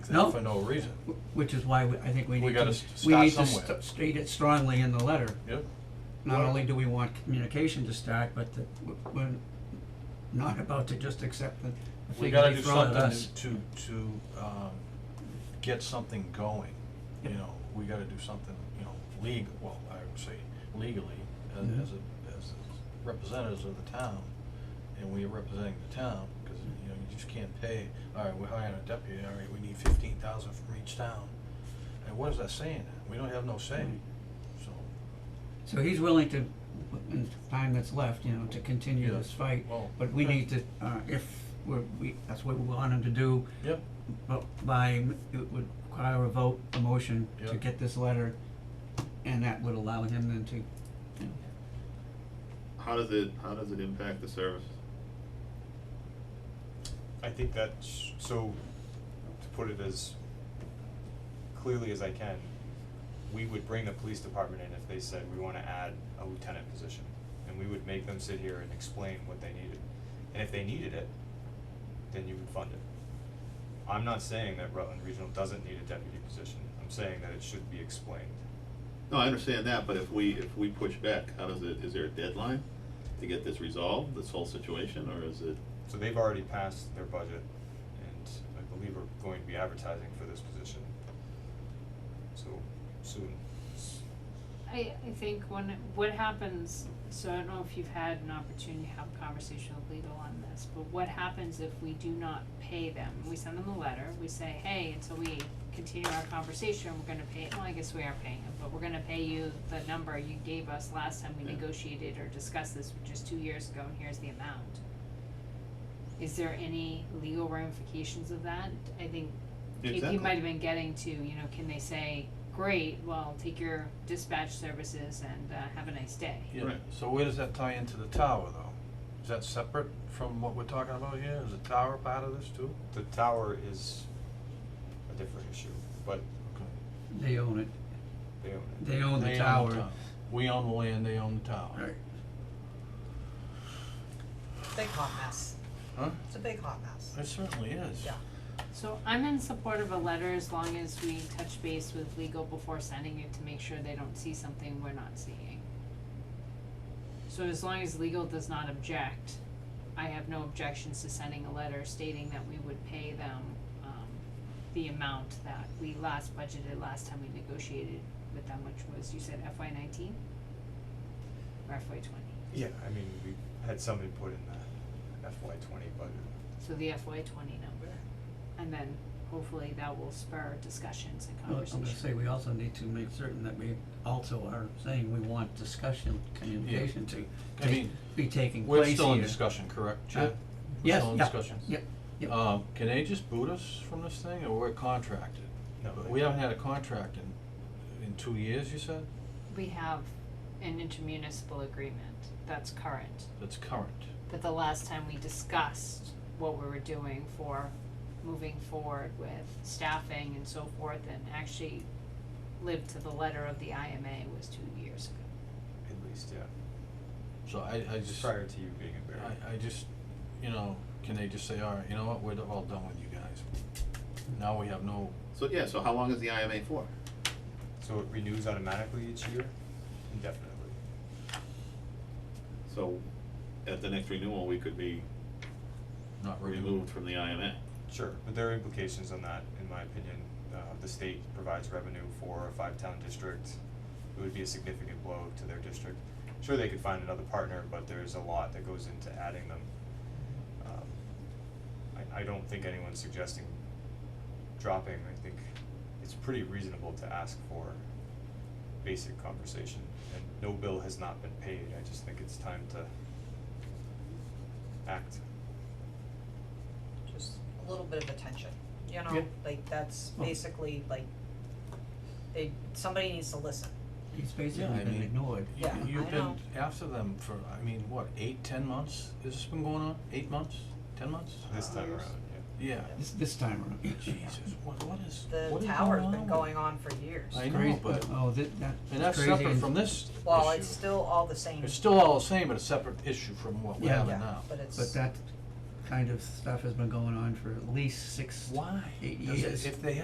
No. for no reason. Wh- Which is why we- I think we We need gotta to, s- we start need to somewhere. st- state it strongly in the letter. Yeah. Not Well- only do we want communication to start, but that w- we're not about to just accept the the We thing gotta they do throw at us. something to, to, um, get something going, you Yep. know, we gotta do something, you know, legal, well, I would say legally, as, Mhm. as a, as representatives of the town, and we are representing the town, cause, you know, you just can't pay, alright, we're hiring a deputy, alright, we need fifteen thousand from each town. And what is that saying? We don't have no say, Right. so, So he's willing to, in the time that's left, you know, to continue Yeah. this fight, well. but we okay. need to, uh, if we're, we, that's what we want him to do, Yep, but by, m- it would require a vote, a motion to Yeah. get this letter, and that would allow him then to, you know, How does it, how does it impact the service? I think that's, so, to put it as clearly as I can, we would bring the police department in if they said, we wanna add a lieutenant position. And we would make them sit here and explain what they needed. And if they needed it, then you would fund it. I'm not saying that Rutland Regional doesn't need a deputy position, I'm saying that it should be explained. No, I understand that, but if we, if we push back, how does it, is there a deadline to get this resolved, this whole situation, or is it? So they've already passed their budget, and I believe we're going to be advertising for this position. So, soon. I, I think when, what happens, so I don't know if you've had an opportunity to have a conversation with legal on this, but what happens if we do not pay them? We send them a letter, we say, hey, until we continue our conversation, we're gonna pay, well, I guess we are paying them, but we're gonna pay you the number you gave us last time we Yeah. negotiated or discussed this, which is two years ago, and here's the amount. Is there any legal ramifications of that? I think Exactly. KP might have been getting to, you know, can they say, great, well, take your dispatch services and uh, have a nice day. Yeah, Right. so where does that tie into the tower though? Is that separate from what we're talking about here? Is the tower part of this too? The tower is a different issue, but they own it, they own it. they own They the tower. We own the land, they own the tower. Right. Big hot mess. Huh? It's a big hot mess. It certainly is. Yeah. So I'm in support of a letter as long as we touch base with legal before sending it to make sure they don't see something we're not seeing. So as long as legal does not object, I have no objections to sending a letter stating that we would pay them um the amount that we last budgeted last time we negotiated with them, which was, you said FY nineteen? Or FY twenty, Yeah, I mean, we had some input in the FY twenty budget. so the FY twenty number, and then hopefully that will spur discussions and Well, I'm conversation. gonna say, we also need to make certain that we also are saying we want discussion, communication to I take, mean, be taking place We're here. still in discussion, correct, Chad? Huh? We're Yes, still in yeah, discussion? yeah, yeah. Um, can they just boot us from this thing or we're contracted? No, But they- We haven't had a contract in, in two years, you said? We have an intermunicipal agreement that's current, That's current. that the last time we discussed what we were doing for moving forward with staffing and so forth and actually lived to the letter of the IMA was two years ago. At least, yeah, So I, I just. prior to you being in Barry. I, I just, you know, can they just say, all right, you know what, we're all done with you guys. Now we have no, So, yeah, so how long is the IMA for? So it renews automatically each year, indefinitely. So, at the next renewal, we could be not renewed. removed from the IMA. Sure, but there are implications on that, in my opinion. Uh, the state provides revenue for a five-town district. It would be a significant blow to their district. Sure, they could find another partner, but there's a lot that goes into adding them. Um, I, I don't think anyone's suggesting dropping. I think it's pretty reasonable to ask for basic conversation. And no bill has not been paid. I just think it's time to act. Just a little bit of attention, you know, Yeah. like that's Well- basically like they, somebody needs to listen. He's Yeah, I basically been mean- ignored. You- Yeah, I You've been know. after them for, I mean, what, eight, ten months? Has this been going on? Eight months? Ten months? This Uh, time years. around, yeah. Yeah. This, this time around. Jesus, what, what is, The what is tower's going been on? going on for years. I know, Crazy, but, oh, that, that and that's separate from this issue. Well, it's still all the same. It's still all the same, but a separate issue from what we're Yeah. having Yeah, now. but it's, But that kind of stuff has been going on for at least six, Why? eight Does it- years. If they